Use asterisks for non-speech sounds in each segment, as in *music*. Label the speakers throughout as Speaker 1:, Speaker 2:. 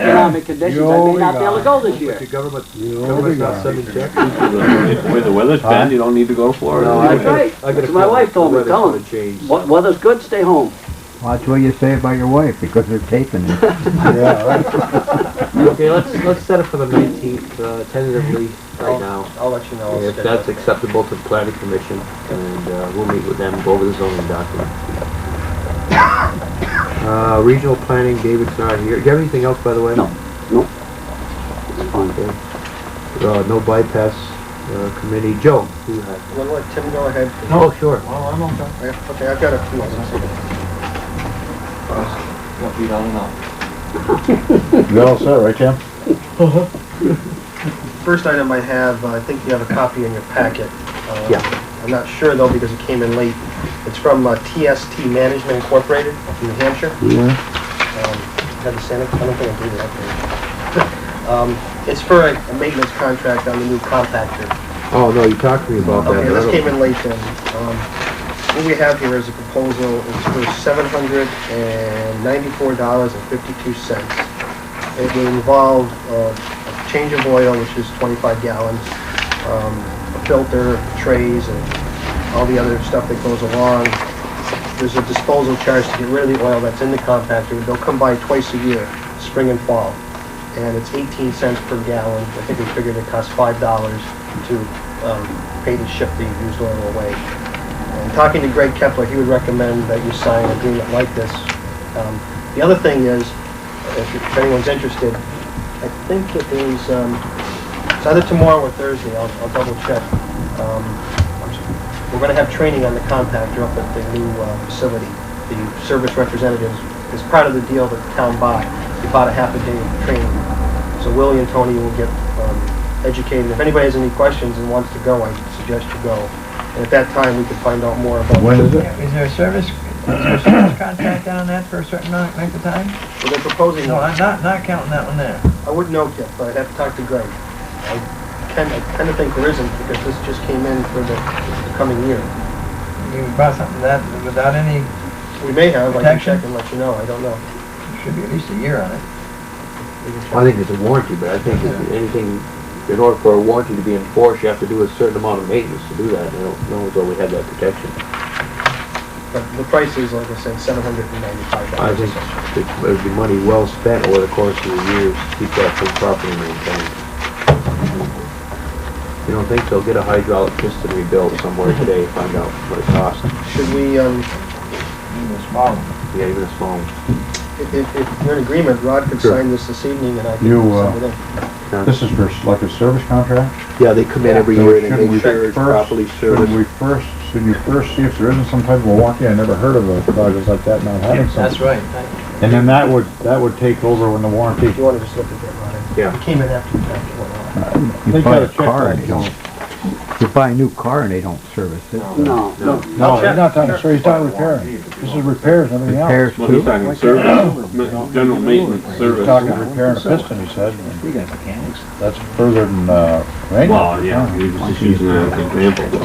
Speaker 1: economic conditions, I may not be able to go this
Speaker 2: The
Speaker 1: year.
Speaker 2: government,
Speaker 3: You
Speaker 2: government's not
Speaker 3: know,
Speaker 2: sending checks.
Speaker 4: The way the weather's been, you don't need to go to Florida.
Speaker 2: No, I
Speaker 1: That's
Speaker 2: gotta-
Speaker 1: right,
Speaker 2: I gotta
Speaker 1: that's my
Speaker 2: call
Speaker 1: wife told me,
Speaker 2: weather's
Speaker 1: tell
Speaker 2: gonna
Speaker 1: him,
Speaker 2: change.
Speaker 1: "Wea- weather's good, stay home.
Speaker 5: Watch what you say about your wife, because they're taping
Speaker 2: *laughs*
Speaker 5: it.
Speaker 3: yeah, right.
Speaker 2: Okay, let's, let's set it for the nineteenth, uh, tentatively, right now.
Speaker 6: I'll let you know.
Speaker 2: If that's acceptable to the planning commission, and, uh, we'll meet with them, go over the zoning document. Uh, regional planning, David's not here. Do you have anything else, by the way?
Speaker 1: No. It's fine.
Speaker 2: Okay. Uh, no bypass, uh, committee. Joe, you have?
Speaker 6: We'll let Tim go ahead.
Speaker 2: Oh, sure.
Speaker 6: Oh, I'm okay. Okay, I've got a few. Won't be long enough.
Speaker 3: You're all set, right, Jim?
Speaker 6: First item I have, uh, I think you have a copy in your packet. Uh,
Speaker 2: Yeah.
Speaker 6: I'm not sure though, because it came in late. It's from uh, TST Management Incorporated, in New Hampshire.
Speaker 3: Yeah.
Speaker 6: Um, Had to send it, I don't think I did that. *laughs* Um, It's for a a maintenance contract on the new compactor.
Speaker 2: Oh, no, you talked to me about that.
Speaker 6: Okay,
Speaker 2: but I
Speaker 6: this
Speaker 2: don't-
Speaker 6: came in late then. Um, What we have here is a proposal, it's for seven hundred and ninety-four dollars and fifty-two cents. It would involve uh, a change of oil, which is twenty-five gallons, um, a filter, trays, and all the other stuff that goes along. There's a disposal charge to get rid of the oil that's in the compactor. They'll come by twice a year, spring and fall. And it's eighteen cents per gallon. I think we figured it costs five dollars to um, pay to ship the used oil away. And talking to Greg Kepler, he would recommend that you sign an agreement like this. Um, The other thing is, if if anyone's interested, I think it is, um, it's either tomorrow or Thursday, I'll, I'll double check. Um, I'm s- We're gonna have training on the compactor up at the new uh, facility. The service representatives, is part of the deal that the town bought, they bought a half a day of training. So Willie and Tony will get um, educated. If anybody has any questions and wants to go, I suggest you go. And at that time, we can find out more about.
Speaker 3: When is it?
Speaker 7: Is there a service, is there a service contract on that for a certain amount, length of time?
Speaker 6: So they're proposing,
Speaker 7: No, I'm
Speaker 6: I
Speaker 7: not, not counting that one there.
Speaker 6: wouldn't know yet, but I'd have to talk to Greg. I kind of, kind of think there isn't because this just came in for the the coming year.
Speaker 7: You brought something to that without any,
Speaker 6: We may have, I can
Speaker 7: Protection?
Speaker 6: check and let you know, I don't know.
Speaker 7: should be at least a year on it.
Speaker 6: We can check.
Speaker 2: I think it's a warranty, but I think if anything, in order for a warranty to be enforced, you have to do a certain amount of maintenance to do that. and I don't know as though we have that protection.
Speaker 6: But the price is, like I said, seven hundred and ninety-five
Speaker 2: I
Speaker 6: dollars.
Speaker 2: think it would be money well spent over the course of the years to keep that thing properly maintained. You don't think so? Get a hydraulic piston rebuilt somewhere today, find out what it costs.
Speaker 6: Should we, um,
Speaker 7: Even a small one.
Speaker 2: Yeah, even a small one.
Speaker 6: if, if- if you're in agreement, Rod could
Speaker 2: Sure.
Speaker 6: sign this this evening and I can
Speaker 3: You, uh,
Speaker 6: send it in.
Speaker 3: This is for like a service contract?
Speaker 2: Yeah, they come in every year and they
Speaker 3: Shouldn't we
Speaker 2: make sure it's
Speaker 3: first-
Speaker 2: properly
Speaker 3: Shouldn't
Speaker 2: serviced.
Speaker 3: we first, shouldn't you first see if there isn't some type of a warranty? I never heard of a project like that not having
Speaker 7: That's
Speaker 3: some.
Speaker 7: right.
Speaker 3: And then that would, that would take over when the warranty.
Speaker 6: If you wanna just look at that, Rod.
Speaker 2: Yeah.
Speaker 6: It came in after the fact, it went off.
Speaker 3: They
Speaker 5: You buy
Speaker 3: gotta
Speaker 5: a
Speaker 3: check
Speaker 5: car
Speaker 3: that.
Speaker 5: and they don't, you buy a new car and they don't service it.
Speaker 1: No, no.
Speaker 3: No, he's not talking, sir, he's talking repairing. This is repairs, and everything else.
Speaker 5: Repairs too.
Speaker 2: *coughs*
Speaker 4: talking service, general maintenance
Speaker 3: He's talking repairing a piston, he said. and
Speaker 5: You guys mechanics.
Speaker 3: That's further than, uh,
Speaker 4: Well,
Speaker 3: maintenance.
Speaker 4: yeah, you're just using that as an example.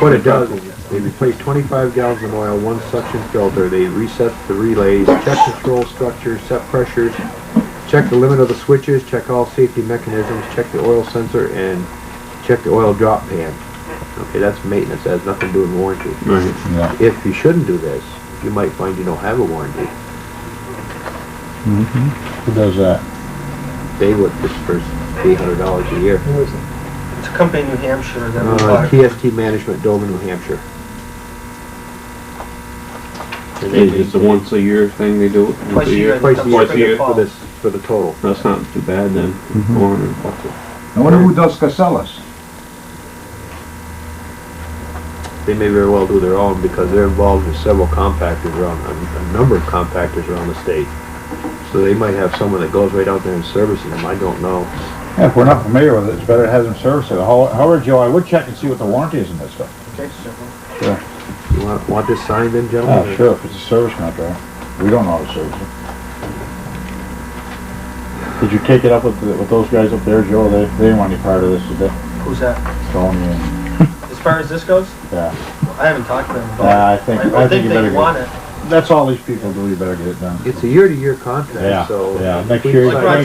Speaker 2: What it does is, they replace twenty-five gallons of oil, one suction filter, they reset the relays, check control structures, set pressures, check the limit of the switches, check all safety mechanisms, check the oil sensor, and check the oil drop pan. Okay, that's maintenance, that has nothing to do with warranty.
Speaker 4: Right.
Speaker 3: Yeah.
Speaker 2: If you shouldn't do this, you might find you don't have a warranty.
Speaker 3: Mm-hmm. Who does that?
Speaker 2: They would, this for eight hundred dollars a year.
Speaker 6: Who is it? It's a company in New Hampshire that we
Speaker 2: Uh,
Speaker 6: bought.
Speaker 2: TST Management, Dover, New Hampshire. And they-
Speaker 4: It's a once a year thing they do it? once
Speaker 6: Twice a year,
Speaker 2: Twice a year
Speaker 4: Twice a year.
Speaker 2: for this, for the total.
Speaker 4: That's not too bad then,
Speaker 2: Mm-hmm.
Speaker 4: four hundred bucks.
Speaker 3: I wonder who does Casellas?
Speaker 2: They may very well do their own because they're involved with several compactors around, a, a number of compactors around the state. So they might have someone that goes right out there and services them, I don't know.
Speaker 3: Yeah, If we're not familiar with it, it's better to have them service it. How- However, Joe, I would check and see what the warranty is in this stuff.
Speaker 6: Okay, so-
Speaker 2: You want, want this signed then, gentlemen?
Speaker 3: Oh, sure, if it's a service contract. We don't know how to service it. Did you take it up with, the- with those guys up there, Joe? They, they didn't want any part of this, did they?
Speaker 6: Who's that?
Speaker 3: Tony and,
Speaker 6: As far as this goes,
Speaker 3: yeah.
Speaker 6: I haven't talked to them
Speaker 3: Yeah,
Speaker 6: about it.
Speaker 3: I think,
Speaker 6: I- I think
Speaker 3: you
Speaker 6: they
Speaker 3: better
Speaker 6: want
Speaker 3: get,
Speaker 6: it.
Speaker 3: that's all these people do, you better get it done.
Speaker 2: It's a year-to-year
Speaker 3: Yeah,
Speaker 2: contract, so.
Speaker 3: yeah,
Speaker 2: if
Speaker 3: next
Speaker 2: we
Speaker 3: year.
Speaker 2: sign-
Speaker 6: Like Roger